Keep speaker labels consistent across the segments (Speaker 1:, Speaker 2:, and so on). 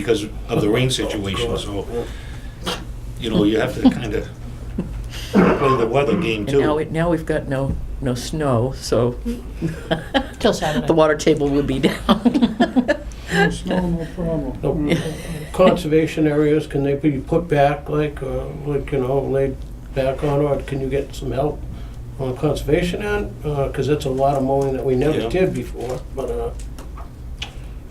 Speaker 1: because of the rain situation, so, you know, you have to kind of play the weather game
Speaker 2: And now, we-
Speaker 1: too.
Speaker 2: now we've got no, no snow, so.
Speaker 3: Till Saturday.
Speaker 2: The water table will be down.
Speaker 4: No snow, no problem.
Speaker 5: No. Conservation areas, can they be put back, like, uh, like, you know, laid back on, or can you get some help on the conservation end? Because that's a lot of mowing that we
Speaker 1: Yeah.
Speaker 5: never did before, but, uh,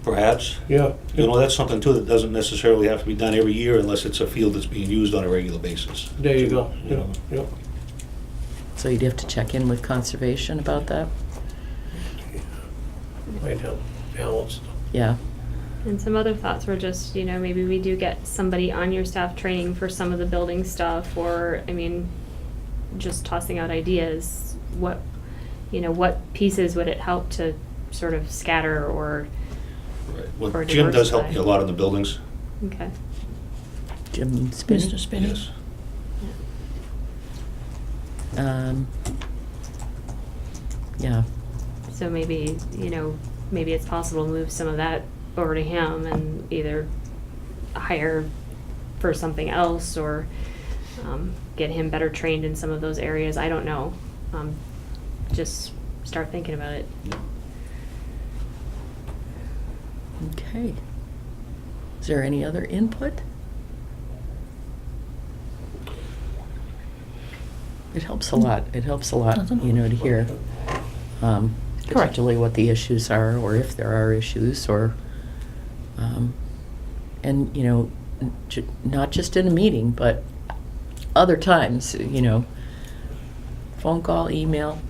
Speaker 1: Perhaps,
Speaker 5: yeah.
Speaker 1: you know, that's something too that doesn't necessarily have to be done every year unless it's a field that's being used on a regular basis.
Speaker 5: There you go,
Speaker 1: You
Speaker 5: yeah,
Speaker 1: know.
Speaker 5: yeah.
Speaker 2: So you'd have to check in with conservation about that?
Speaker 5: Might help balance.
Speaker 2: Yeah,
Speaker 6: And some other thoughts were just, you know, maybe we do get somebody on your staff training for some of the building stuff, or, I mean, just tossing out ideas, what, you know, what pieces would it help to sort of scatter or,
Speaker 1: Right. Well,
Speaker 6: Or
Speaker 1: Jim does help
Speaker 6: diversify.
Speaker 1: me a lot in the buildings,
Speaker 6: okay.
Speaker 2: Jim
Speaker 3: Mr.
Speaker 2: Spinney.
Speaker 3: Spinney?
Speaker 1: yes.
Speaker 2: Um, Yeah,
Speaker 6: So maybe, you know, maybe it's possible to move some of that over to him and either hire for something else or um, get him better trained in some of those areas. I don't know. Um, just start thinking about it.
Speaker 2: okay. Is there any other input? It helps a lot, it helps a lot,
Speaker 3: Nothing.
Speaker 2: you know, to hear, um,
Speaker 3: Correct.
Speaker 2: particularly what the issues are, or if there are issues, or, um, and, you know, n- ju- not just in a meeting, but other times, you know, phone call, email.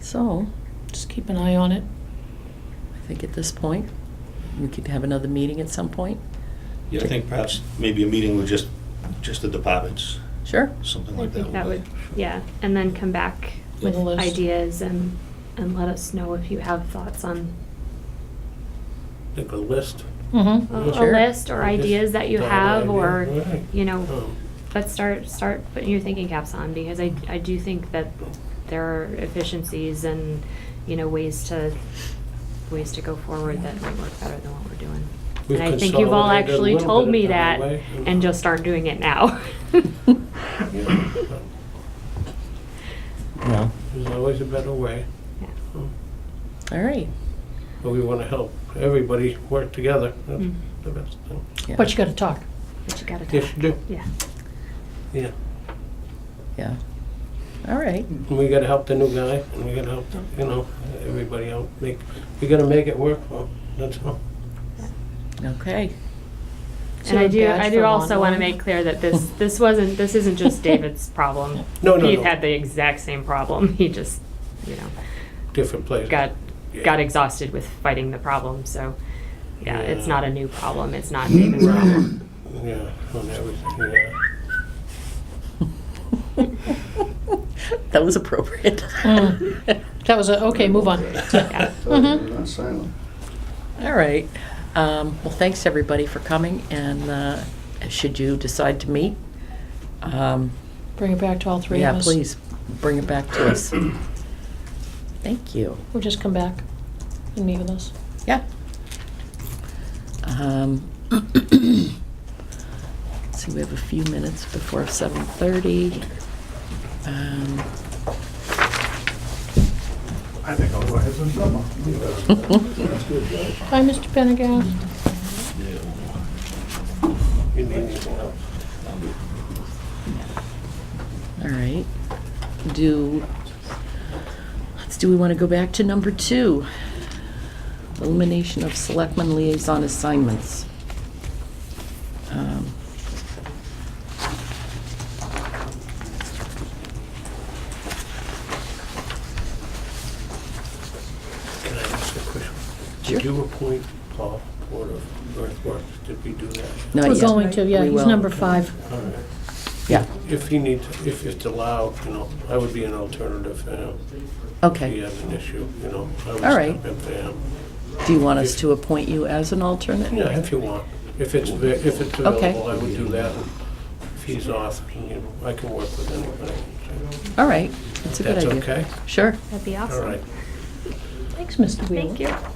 Speaker 2: So,
Speaker 3: Just keep an eye on it.
Speaker 2: I think at this point, we could have another meeting at some point.
Speaker 1: Yeah, I think perhaps maybe a meeting with just, just the departments,
Speaker 2: Sure.
Speaker 1: something
Speaker 6: I
Speaker 1: like that.
Speaker 6: think that would, yeah, and then come back
Speaker 3: With
Speaker 6: with
Speaker 3: a list.
Speaker 6: ideas and, and let us know if you have thoughts on
Speaker 5: Like a list.
Speaker 3: Mm-hmm.
Speaker 6: a a
Speaker 2: Sure.
Speaker 6: list or
Speaker 5: Just
Speaker 6: ideas that you
Speaker 5: thought of
Speaker 6: have,
Speaker 5: idea.
Speaker 6: or,
Speaker 5: Right.
Speaker 6: you know,
Speaker 5: Um,
Speaker 6: But start, start putting your thinking caps on, because I, I do think that there are efficiencies and, you know, ways to, ways to go forward that might work better than what we're doing.
Speaker 5: We've
Speaker 6: And I think you've all
Speaker 5: consolidated a
Speaker 6: actually
Speaker 5: little
Speaker 6: told
Speaker 5: bit
Speaker 6: me
Speaker 5: down
Speaker 6: that,
Speaker 5: the way.
Speaker 6: and just aren't doing it now.
Speaker 5: yeah.
Speaker 2: No.
Speaker 5: There's always a better way,
Speaker 2: All right.
Speaker 5: but we want to help everybody work together. That's
Speaker 6: Mm.
Speaker 5: the best thing.
Speaker 2: Yeah.
Speaker 3: But you gotta talk.
Speaker 6: But you gotta
Speaker 5: Yes,
Speaker 6: talk,
Speaker 5: you do,
Speaker 6: yeah.
Speaker 5: yeah.
Speaker 2: Yeah. All right.
Speaker 5: And we gotta help the new guy, and we gotta help, you know, everybody out, make, we gotta make it work for 'em, that's all.
Speaker 2: Okay.
Speaker 6: And I do, I do also wanna
Speaker 3: to
Speaker 6: make clear that this, this wasn't, this isn't just David's problem.
Speaker 5: No, no,
Speaker 6: Keith
Speaker 5: no.
Speaker 6: had the exact same problem, he just, you know.
Speaker 5: Different place.
Speaker 6: got
Speaker 5: Yeah.
Speaker 6: got exhausted with fighting the problem. So yeah, it's
Speaker 5: Yeah.
Speaker 6: not a new problem. It's not David's problem.
Speaker 5: Yeah, on everything, yeah.
Speaker 2: That was appropriate.
Speaker 3: Mm. That was a, okay, move on.
Speaker 6: Yeah.
Speaker 3: Mhm.
Speaker 7: Not silent.
Speaker 2: All right. Um, well, thanks everybody for coming. And uh, should you decide to meet, um,
Speaker 3: Bring it back to all three of
Speaker 2: yeah,
Speaker 3: us.
Speaker 2: please bring it back to us. Thank you.
Speaker 3: Or just come back and meet with us.
Speaker 2: Yeah. Um, So we have a few minutes before 7:30. Um,
Speaker 7: I think I'll go ahead and drum up. That's good, right?
Speaker 3: Hi, Mr. Pendergast.
Speaker 2: Mm-hmm.
Speaker 5: You need anything else?
Speaker 2: All right. Do, let's, do we want to go back to number two? Elimination of selectmen liaison assignments. Um,
Speaker 5: Can I ask a question?
Speaker 2: Sure.
Speaker 5: Did you appoint Paul Board of Earthworks, did we do that?
Speaker 2: Not
Speaker 3: We're
Speaker 2: yet.
Speaker 3: going to, yeah,
Speaker 2: Oh, We
Speaker 3: he's
Speaker 2: will.
Speaker 3: number five.
Speaker 5: All right.
Speaker 2: Yeah,
Speaker 5: If he needs, if it's allowed, you know, I would be an alternative for him. If he
Speaker 2: okay.
Speaker 5: has an issue, you know, I would
Speaker 2: All right.
Speaker 5: step in for him.
Speaker 2: Do you want us to appoint you as an alternate?
Speaker 5: Yeah, if you want, if it's, ava- if it's
Speaker 2: Okay.
Speaker 5: available, I would do that. If he's off, you know, I can work with anybody.
Speaker 2: All right, that's a good
Speaker 5: That's
Speaker 2: idea.
Speaker 5: okay?
Speaker 2: Sure.
Speaker 6: That'd be
Speaker 5: All right.
Speaker 6: awesome.
Speaker 8: Thanks, Mr. Wheeler.
Speaker 3: Thank you.